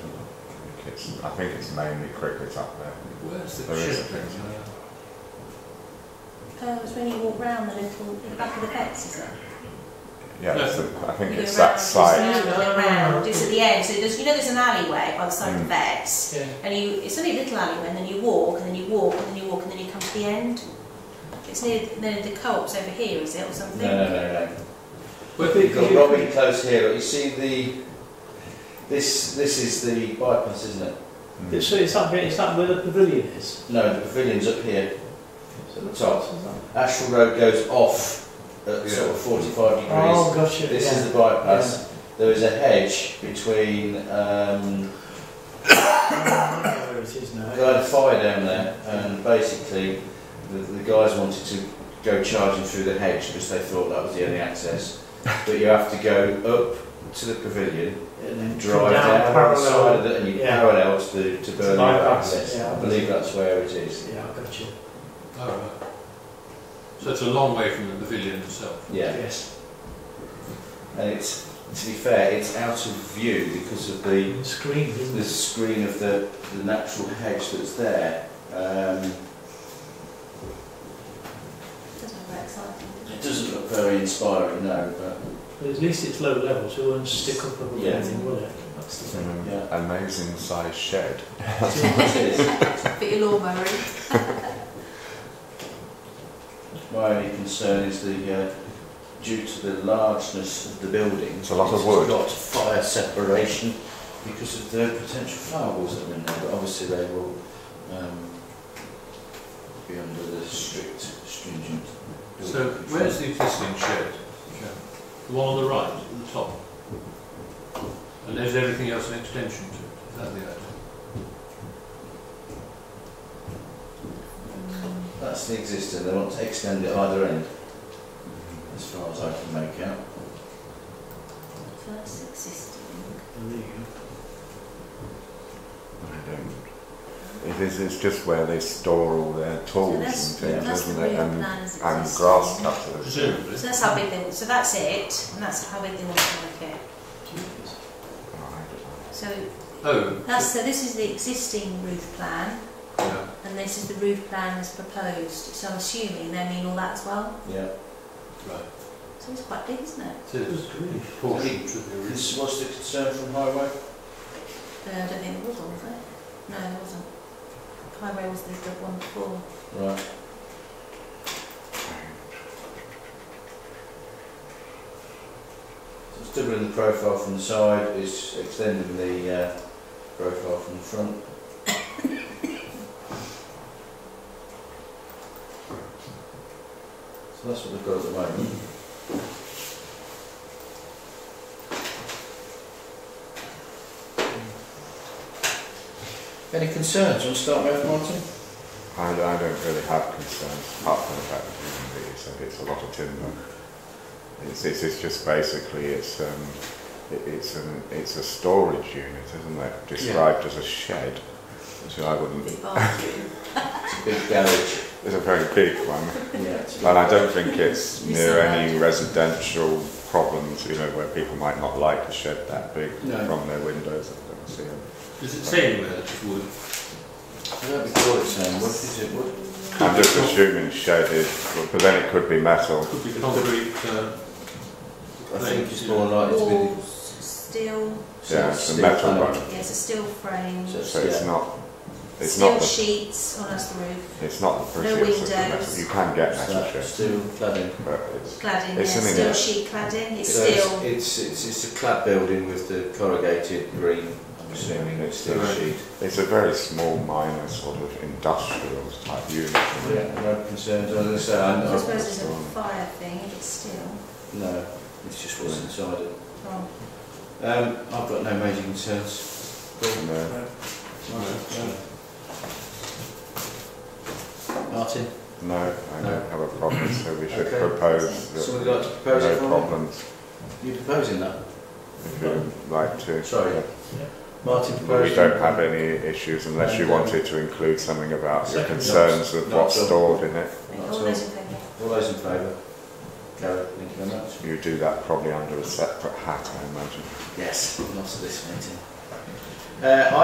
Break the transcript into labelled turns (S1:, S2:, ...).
S1: it's, I think it's mainly cricket up there.
S2: Where's the
S1: There is
S2: chip?
S1: a fence.
S2: Uh,
S3: Oh, it's when you walk round the little, the back of the fence, is it?
S1: Yeah,
S2: No.
S1: it's the- I think
S3: You go
S1: it's
S3: round,
S1: that side.
S3: It's, round, round, it's at the end, so there's, you know there's an alleyway by the side of the
S1: Mm.
S3: vets,
S2: Yeah.
S3: and you, it's only a little alleyway, and then you walk, and then you walk, and then you walk, and then you come to the end. It's near, near the co-op's over here, is it, or something?
S4: No, no, no, no.
S2: But
S4: We've got
S2: the,
S4: Robbie close here. You see the, this, this is the bypass, isn't it?
S1: Mm.
S5: It's, it's up here, it's up where the pavilion is.
S4: No, the pavilion's up here.
S5: It's at
S4: Top.
S5: isn't it?
S4: Ashwell Road goes off at sort of 45 degrees.
S5: Oh, gotcha.
S4: This
S5: yeah.
S4: is the bypass. There is a hedge between, um,
S5: I don't know where it is now.
S4: they had a fire down there, and basically the, the guys wanted to go charging through the hedge because they thought that was the only access. But you have to go up to the pavilion,
S5: And then
S4: drive
S5: down
S4: down, the side
S5: parallel.
S4: of it, and you
S5: yeah.
S4: parallel to the to Burnley
S5: bypass,
S4: access.
S5: yeah.
S4: I believe that's where it is.
S5: Yeah, I got you.
S2: oh, right. So it's a long way from the pavilion itself.
S4: Yeah.
S5: Yes.
S4: And it's to be fair, it's out of view because of the
S5: Even screened, isn't
S4: the
S5: it?
S4: screen of the, the natural hedge that's there. Um,
S3: Doesn't look very exciting.
S4: it doesn't look very inspiring, no, but
S5: But at least it's low level, so it won't stick up above
S4: Yeah.
S5: anything, will it? That's the thing.
S1: Mm.
S4: Yeah.
S1: Amazing size shed.
S4: it is.
S3: Bit your lawnmower in.
S4: My only concern is the, uh, due to the largeness of the building,
S1: It's a lot of wood.
S4: got fire separation because of the potential firewalls that are in there, but obviously they will um, be under the strict, stringent. building
S2: So
S4: control.
S2: where's the existing shed? Joe? The one on the right, at the top. And is everything else an extension to it? Is that the idea?
S3: Mm,
S4: That's the existing, they want to extend it either end, as far as I can make out.
S3: So that's existing.
S5: Oh, there you go.
S1: I don't. It is, it's just where they store all their
S3: So
S1: tools
S3: that's,
S1: and things,
S3: that's the
S1: isn't
S3: real
S1: it? And,
S3: plan as
S1: and
S3: existing.
S1: grass cutters.
S2: Presumably.
S3: So that's how big they, so that's it, and that's how big they want to make it.
S5: Jesus.
S1: Oh, Right.
S3: So
S2: Oh,
S3: that's, so this is the existing roof plan,
S2: yeah.
S3: and this is the roof plan as proposed, so I'm assuming they mean all that as well.
S4: Yeah.
S2: Right.
S3: So it's quite big, isn't it?
S2: It is.
S5: Good grief.
S2: Proportion to the original.
S4: This was the concern from Highway?
S3: No, Uh, I don't think it was on, was it? No, it wasn't. Highway was the good one before.
S4: Right. So it's doubling the profile from the side, it's extending the uh, profile from the front. So that's what they've got at the moment. Any concerns? Want to start with Martin?
S1: I, I don't really have concerns apart from the fact that it is, it's a lot of timber. It's, it's, it's just basically it's um, it, it's an it's a storage unit, isn't it? Described as a shed, which I wouldn't.
S3: Big bathroom.
S4: Big garage.
S1: It's a very big one.
S4: Yeah.
S1: And I don't think it's
S3: You
S1: near
S3: said
S1: any residential problems, you know, where people might not like a shed that big
S4: No.
S1: from their windows. I don't see them.
S2: Does it say anywhere that it's wood?
S4: I don't recall it saying wood, is it wood?
S1: I'm just assuming shed is, but then it could be metal.
S2: Could be concrete, uh,
S4: I think Oh, it's more likely to be
S3: Walls, steel,
S4: the.
S1: Yeah, it's a
S4: steel
S1: metal
S4: panel.
S1: one.
S3: yeah, it's a steel frame.
S4: So
S1: So it's
S4: yeah.
S1: not, it's
S3: Steel
S1: not the
S3: sheets on us the roof,
S1: It's not the prettiest of the metal.
S3: windows.
S1: You can get
S4: It's
S1: metal
S4: that
S1: sheds,
S4: Steel cladding.
S1: but it's
S3: cladding, yeah,
S1: It's something
S3: steel
S1: that-
S3: sheet cladding, it's
S4: So
S3: steel.
S4: It's, it's, it's a clad building with the corrugated green, I'm assuming it's steel
S2: Right.
S4: sheet.
S1: it's a very small, minor sort of industrial type unit. isn't it?
S4: Yeah, no concerns, as I say, I
S3: I
S4: know.
S3: suppose there's a fire thing, if it's steel.
S4: No, it's just what's inside it.
S3: Oh,
S4: Um, I've got no major concerns.
S1: And, uh,
S4: Martin?
S1: No, I don't have a problem, so we should
S4: Okay.
S1: propose that
S4: So we'd like to propose
S1: no
S4: it, Martin?
S1: problems,
S4: You proposing that?
S1: if you'd like to.
S4: Sorry.
S1: Yeah.
S4: Martin
S1: But
S4: proposing?
S1: We don't have any issues unless you
S4: And, um,
S1: wanted to include something about your
S5: second
S1: concerns of
S4: not
S1: what's
S4: so-
S1: stored in it.
S4: Not at
S3: all
S4: all.
S3: those in favour?
S4: All those in favour? Gary, thank you very much.
S1: You do that probably under a separate hat, I imagine.
S4: Yes, not at this meeting. Uh,